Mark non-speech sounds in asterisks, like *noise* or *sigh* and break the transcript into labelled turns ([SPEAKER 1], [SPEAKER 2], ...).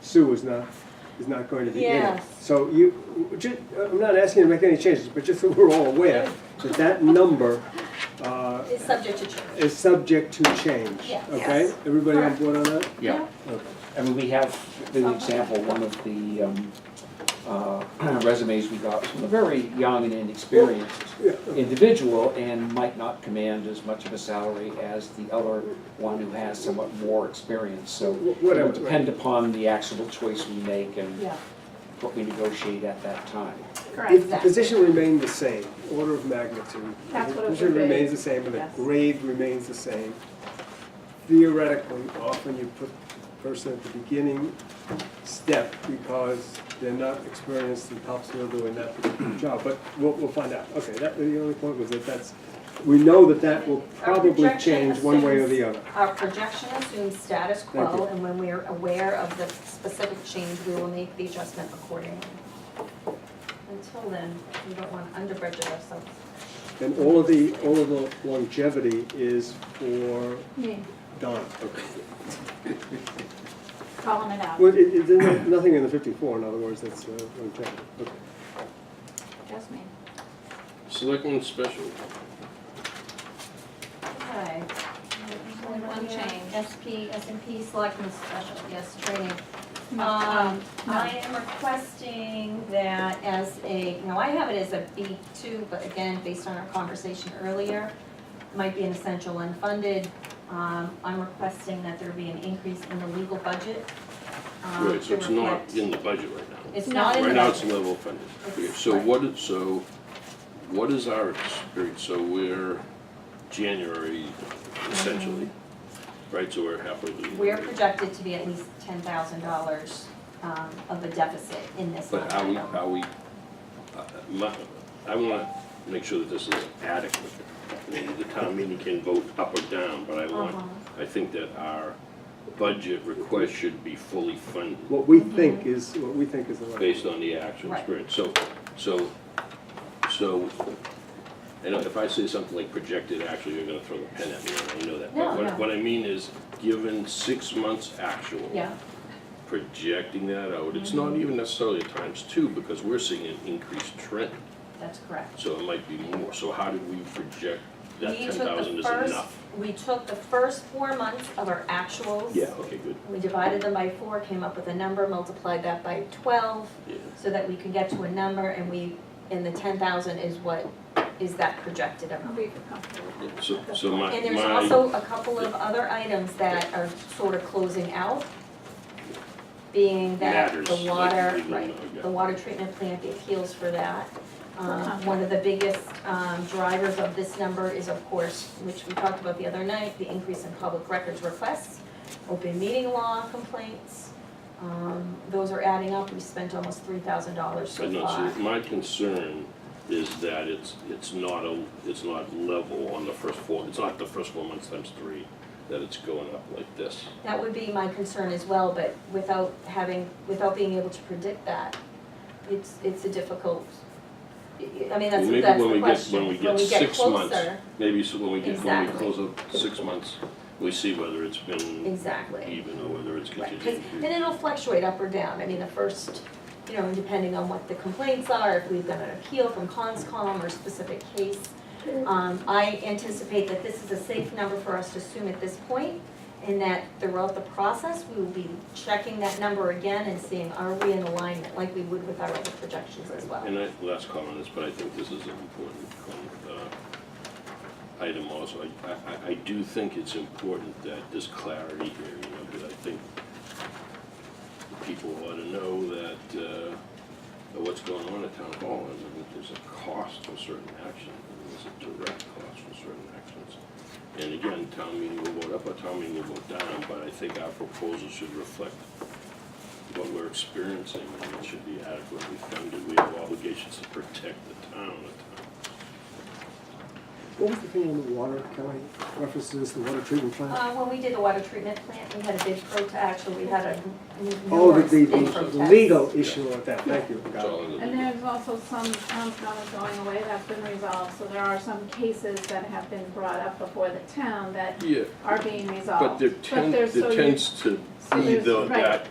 [SPEAKER 1] Sue is not, is not going to be in it.
[SPEAKER 2] Yes.
[SPEAKER 1] So you, ju- I'm not asking you to make any changes, but just so we're all aware that that number uh,
[SPEAKER 2] It's subject to change.
[SPEAKER 1] is subject to change.
[SPEAKER 2] Yes.
[SPEAKER 1] Okay? Everybody on board on that?
[SPEAKER 3] Yeah,
[SPEAKER 1] Okay.
[SPEAKER 3] I mean, we have, as an example, one of the um, uh, *clears throat* resumes we got from a very young and inexperienced
[SPEAKER 1] Yeah,
[SPEAKER 3] individual and might not command as much of a salary as the other one who has somewhat more experience. So
[SPEAKER 1] Wh-
[SPEAKER 3] it will
[SPEAKER 1] whatever,
[SPEAKER 3] depend upon the actual choice we make and
[SPEAKER 2] Yeah,
[SPEAKER 3] what we negotiate at that time.
[SPEAKER 1] If
[SPEAKER 2] correct.
[SPEAKER 1] the position remained the same, order of magnitude.
[SPEAKER 4] That's what it
[SPEAKER 1] Position
[SPEAKER 4] would be.
[SPEAKER 1] remains the same, but the
[SPEAKER 4] Yes.
[SPEAKER 1] grade remains the same. Theoretically, often you put the person at the beginning step because they're not experienced and top skill doing that particular job, but we'll, we'll find out. Okay, that, the only point was that that's, we know that that will
[SPEAKER 2] Our
[SPEAKER 1] probably
[SPEAKER 2] projection
[SPEAKER 1] change one way or the
[SPEAKER 2] assumes-
[SPEAKER 1] other.
[SPEAKER 2] Our projection assumes status
[SPEAKER 1] Thank you.
[SPEAKER 2] quo, and when we are aware of the specific change, we will make the adjustment accordingly. Until then, we don't want to under budget ourselves.
[SPEAKER 1] And all of the, all of the longevity is for
[SPEAKER 4] Me,
[SPEAKER 1] Don.
[SPEAKER 4] calling it out.
[SPEAKER 1] Well, it, it, there's nothing in the fifty-four, in other words, that's uh, longevity. Okay.
[SPEAKER 4] Just me.
[SPEAKER 5] Selectmen special,
[SPEAKER 2] Okay.
[SPEAKER 6] Only one change, SP, S and P Selectmen Special, yes, training.
[SPEAKER 2] Um, I am requesting that as a, no, I have it as a B two, but again, based on our conversation earlier, might be an essential unfunded. Um, I'm requesting that there be an increase in the legal budget. um,
[SPEAKER 5] right, so
[SPEAKER 2] to
[SPEAKER 5] it's not
[SPEAKER 2] reflect-
[SPEAKER 5] in the budget right now.
[SPEAKER 2] It's not in the
[SPEAKER 5] Right now, it's
[SPEAKER 2] budget.
[SPEAKER 5] level funded. Okay, So what is, so what is our experience? So we're January essentially, right, so we're halfway through. the
[SPEAKER 2] We're
[SPEAKER 5] year.
[SPEAKER 2] projected to be at least ten thousand dollars, um, of a deficit in this line
[SPEAKER 5] But are we,
[SPEAKER 2] item.
[SPEAKER 5] are we, uh, my- I want to make sure that this is adequate. I mean, The town meeting can vote up or down, but I want, I think that our budget request should be fully funded.
[SPEAKER 1] What we think is, what we think is the right.
[SPEAKER 5] based on the actual
[SPEAKER 2] Right.
[SPEAKER 5] experience. So, so, so, and if I say something like projected, actually, you're gonna throw the pen at me, and I know that.
[SPEAKER 2] No,
[SPEAKER 5] But
[SPEAKER 2] no.
[SPEAKER 5] what- What I mean is, given six months actual.
[SPEAKER 2] Yeah, Mm-hmm.
[SPEAKER 5] Projecting that out, it's not even necessarily a times two, because we're seeing an increased trend,
[SPEAKER 2] that's correct.
[SPEAKER 5] so it might be more. So how did we project that
[SPEAKER 2] We
[SPEAKER 5] ten
[SPEAKER 2] took the
[SPEAKER 5] thousand is
[SPEAKER 2] first-
[SPEAKER 5] enough?
[SPEAKER 2] We took the first four months of our actuals.
[SPEAKER 5] Yeah, okay, good,
[SPEAKER 2] We divided them by four, came up with a number, multiplied that by twelve,
[SPEAKER 5] yeah.
[SPEAKER 2] so that we could get to a number, and we, and the ten thousand is what, is that projected amount.
[SPEAKER 4] We could comfortable.
[SPEAKER 5] Yeah, So, so my,
[SPEAKER 2] And there's
[SPEAKER 5] my,
[SPEAKER 2] also a couple of other items that are sort of closing out, being that
[SPEAKER 5] Matters,
[SPEAKER 2] the
[SPEAKER 5] like
[SPEAKER 2] water,
[SPEAKER 5] legal,
[SPEAKER 2] right,
[SPEAKER 5] yeah.
[SPEAKER 2] the water treatment plant, the appeals for that. Um, One of the biggest um, drivers of this number is, of course, which we talked about the other night, the increase in public records requests, open meeting law complaints. Um, Those are adding up, we spent almost three thousand dollars
[SPEAKER 5] I
[SPEAKER 2] so
[SPEAKER 5] know,
[SPEAKER 2] far.
[SPEAKER 5] so my concern is that it's, it's not a, it's not level on the first four, it's not the first four months times three, that it's going up like this.
[SPEAKER 2] That would be my concern as well, but without having, without being able to predict that, it's, it's a difficult, I mean, that's,
[SPEAKER 5] Maybe
[SPEAKER 2] that's
[SPEAKER 5] when
[SPEAKER 2] the
[SPEAKER 5] we get-
[SPEAKER 2] question.
[SPEAKER 5] when we get six months,
[SPEAKER 2] closer,
[SPEAKER 5] Maybe so when we get, when we
[SPEAKER 2] Exactly.
[SPEAKER 5] close up six months, we see whether it's been
[SPEAKER 2] Exactly,
[SPEAKER 5] even or whether it's
[SPEAKER 2] right, 'cause-
[SPEAKER 5] continued.
[SPEAKER 2] and it'll fluctuate up or down, I mean, the first, you know, depending on what the complaints are, if we've got an appeal from conscom or specific case. Um, I anticipate that this is a safe number for us to assume at this point, and that throughout the process, we will be checking that number again and seeing, are we in alignment, like we would with our other projections as well.
[SPEAKER 5] And I, last comment on this, but I think this is an important comment, uh, item also. I- I, I, I do think it's important that there's clarity here, you know, because I think people ought to know that, uh, what's going on at town hall, and that there's a cost for certain actions, and there's a direct cost for certain actions. And again, town meeting will vote up or town meeting will vote down, but I think our proposal should reflect what we're experiencing, and it should be adequately funded. We have obligations to protect the town.
[SPEAKER 1] What was the thing on the water, Kelly, references to this, the water treatment plant?
[SPEAKER 2] Uh, when we did the water treatment plant, we had a big protest, actually, we had a n-
[SPEAKER 1] Oh, the,
[SPEAKER 2] numerous
[SPEAKER 1] the,
[SPEAKER 2] big
[SPEAKER 1] the
[SPEAKER 2] protests.
[SPEAKER 1] legal issue with that, thank you.
[SPEAKER 5] It's
[SPEAKER 1] Got it.
[SPEAKER 5] all in the-
[SPEAKER 4] And there's also some towns not going away, that's been resolved, so there are some cases that have been brought up before the town that
[SPEAKER 5] Yeah,
[SPEAKER 4] are being resolved.
[SPEAKER 5] but there tend,
[SPEAKER 4] there's- so
[SPEAKER 5] there
[SPEAKER 4] you-
[SPEAKER 5] tends to
[SPEAKER 4] so
[SPEAKER 5] be
[SPEAKER 4] there's-
[SPEAKER 5] though
[SPEAKER 4] right.
[SPEAKER 5] that